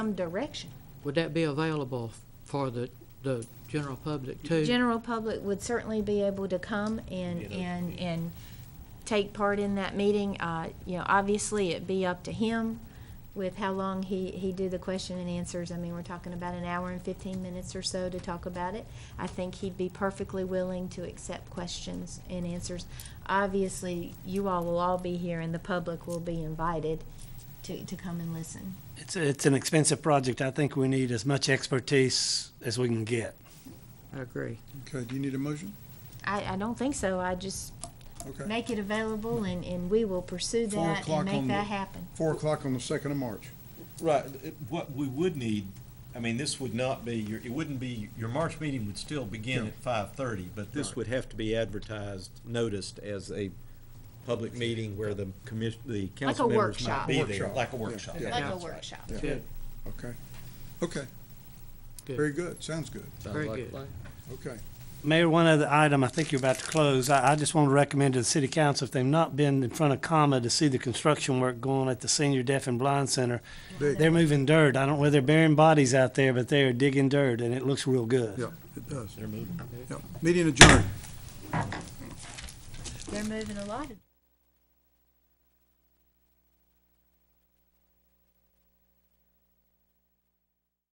some direction. Would that be available for the, the general public too? General public would certainly be able to come and, and, and take part in that meeting. Uh, You know, obviously, it'd be up to him with how long he, he do the question and answers. I mean, we're talking about an hour and fifteen minutes or so to talk about it. I think he'd be perfectly willing to accept questions and answers. Obviously, you all will all be here and the public will be invited to, to come and listen. It's, it's an expensive project. I think we need as much expertise as we can get. I agree. Okay, do you need a motion? I, I don't think so. I just Okay. make it available and, and we will pursue Four that and o'clock make on that the- happen. Four o'clock on the second of March. Right, it- what we would need, I mean, this would not be, your it wouldn't be, your March meeting would still begin at five-thirty, but this would have to be advertised, noticed as a public meeting where the commission, the council members workshop. might be there. Workshop. Like a workshop. Yeah. Like a That's workshop. Yeah. Good, Okay. Okay. Good. Very good. Sounds good. very good. Okay. Mayor, one other item, I think you're about to close. I, I just want to recommend to the city council, if they've not been in front of comma to see the construction work going at the Senior Deaf and Blind Center, Big. they're moving dirt. I don't know whether they're burying bodies out there, but they are digging dirt and it looks real good. Yeah, it does. They're moving. Yeah. Meeting adjourned. They're moving a lot of